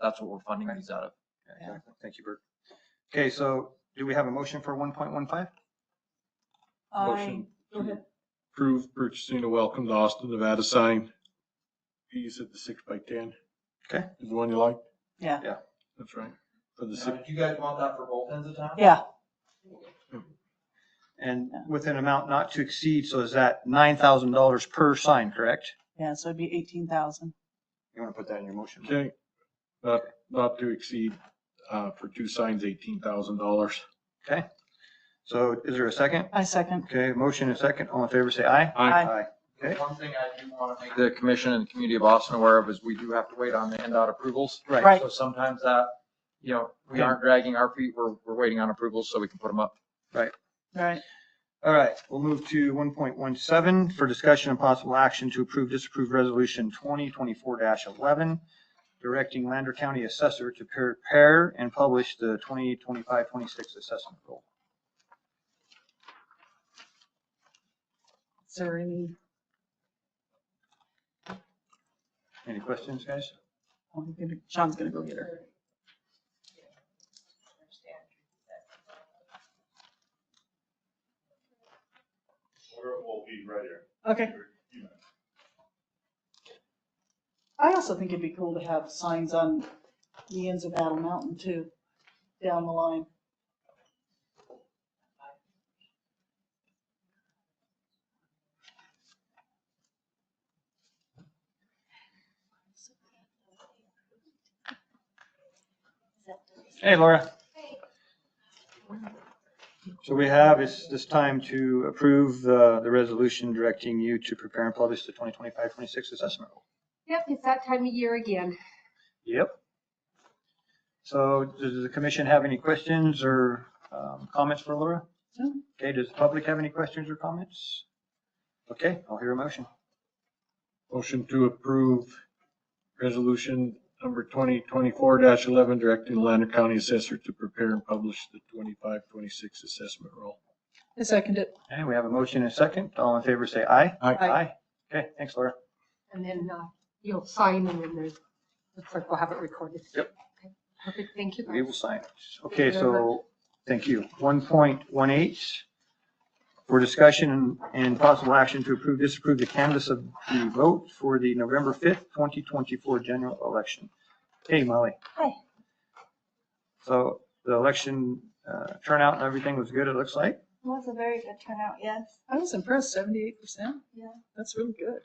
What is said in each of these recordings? That's what we're funding these out of. Yeah, Thank you, Bert. Okay, so do we have a motion for one point one five? I, Motion. go ahead. Approve purchasing a welcome to Austin, Nevada sign. You said the six by ten. Okay. Is the one you like? Yeah. Yeah. That's right. For the six, you guys want that for both ends of town? yeah, And Yeah. with an amount not to exceed, so is that nine thousand dollars per sign, correct? yeah, so it'd be eighteen thousand. You want to put that in your motion? okay. Not, not to exceed, uh, for two signs, eighteen thousand dollars. Okay. So is there a second? I second. Okay, motion and second. All in favor, say aye. Aye. Okay, One thing I do want to make the commission and the community of Austin aware of is we do have to wait on the NDOT approvals. right. Right, So sometimes that, you know, we aren't dragging our feet. We're, we're waiting on approvals so we can put them up. right. All right, we'll move to one point one seven for discussion and possible action to approve, disapprove resolution twenty twenty-four eleven, directing Lander County Assessor to prepare and publish the 2025-26 assessment roll. Is there any, Any questions, guys? oh, I'm gonna- Sean's gonna go get her. Or it will be right here. Okay. I also think it'd be cool to have signs on the ends of Battle Mountain too, down the line. Hey, Laura. So we have, it's this time to approve the, the resolution directing you to prepare and publish the 2025-26 assessment roll. Yep, it's that time of year again. Yep. So does the commission have any questions or um, comments for Laura? No. Okay, does the public have any questions or comments? Okay, I'll hear a motion. Motion to approve resolution number twenty twenty-four eleven, directing Lander County Assessor to prepare and publish the twenty-five, twenty-six assessment roll. I second it. Okay, we have a motion and a second. All in favor, say aye. Aye. Okay, thanks, Laura. And then uh, you'll sign and then there's, the clerk will have it recorded. Yep. Okay, Perfect, thank you. We will guys. sign it. Okay, so, thank you. 1.18, for discussion and- and possible action to approve, disapprove the canvas of the vote for the November 5th, 2024 general election. Hey, Molly. Hi. So the election uh, turnout and everything was good, it looks like. It was a very good turnout, yes. I was impressed, seventy-eight percent? Yeah. That's really good.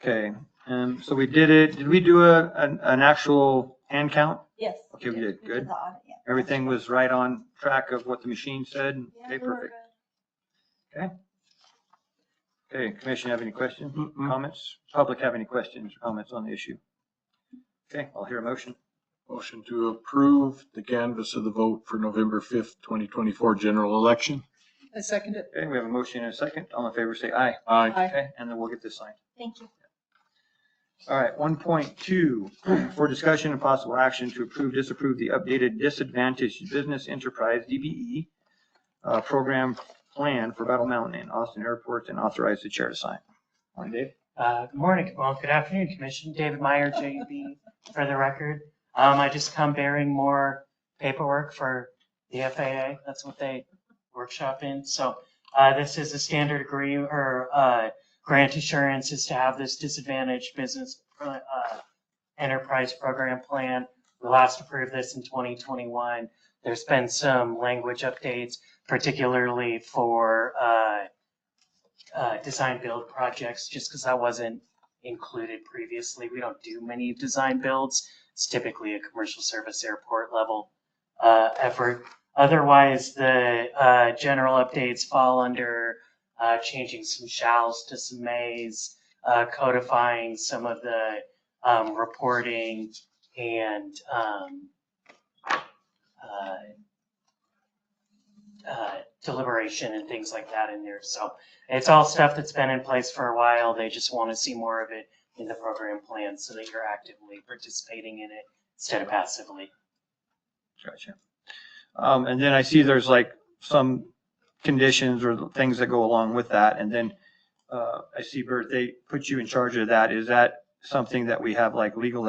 Okay, um, so we did it, did we do a, an an actual hand count? Yes. Okay, we did good. the audit, yeah. Everything was right on track of what the machine said? Yeah, Okay, we were perfect. good. Okay, commission have any questions, Mm-mm. comments? Public have any questions, or comments on the issue? Okay, I'll hear a motion. Motion to approve the canvas of the vote for November fifth, twenty twenty-four general election. I second it. Okay, we have a motion and a second. All in favor, say aye. Aye. Aye. Okay, and then we'll get this signed. Thank you. All right, one point two, for discussion and possible action to approve, disapprove the updated disadvantaged business enterprise, DBE, uh, program plan for Battle Mountain and Austin airports and authorize the chair to sign. Morning, Dave. Uh, Good morning, well, good afternoon, Commission. David Meyer, JB, for the record. Um, I just come bearing more paperwork for the FAA. That's what they workshop in. So uh, this is a standard agreement or uh, grant assurance is to have this disadvantaged business uh, enterprise program plan. We last approved this in 2021. There's been some language updates, particularly for uh, uh, design build projects, just because that wasn't included previously. We don't do many design builds. It's typically a commercial service airport level uh, effort. Otherwise, the uh, general updates fall under uh, changing some shalls to some mays, uh, codifying some of the um, reporting and um, uh, uh, deliberation and things like that in there. So it's all stuff that's been in place for a while. They just want to see more of it in the program plan so that you're actively participating in it instead of passively. Gotcha. Um, and then I see there's like some conditions or things that go along with that. And then, uh, I see Bert, they put you in charge of that. Is that something that we have like legal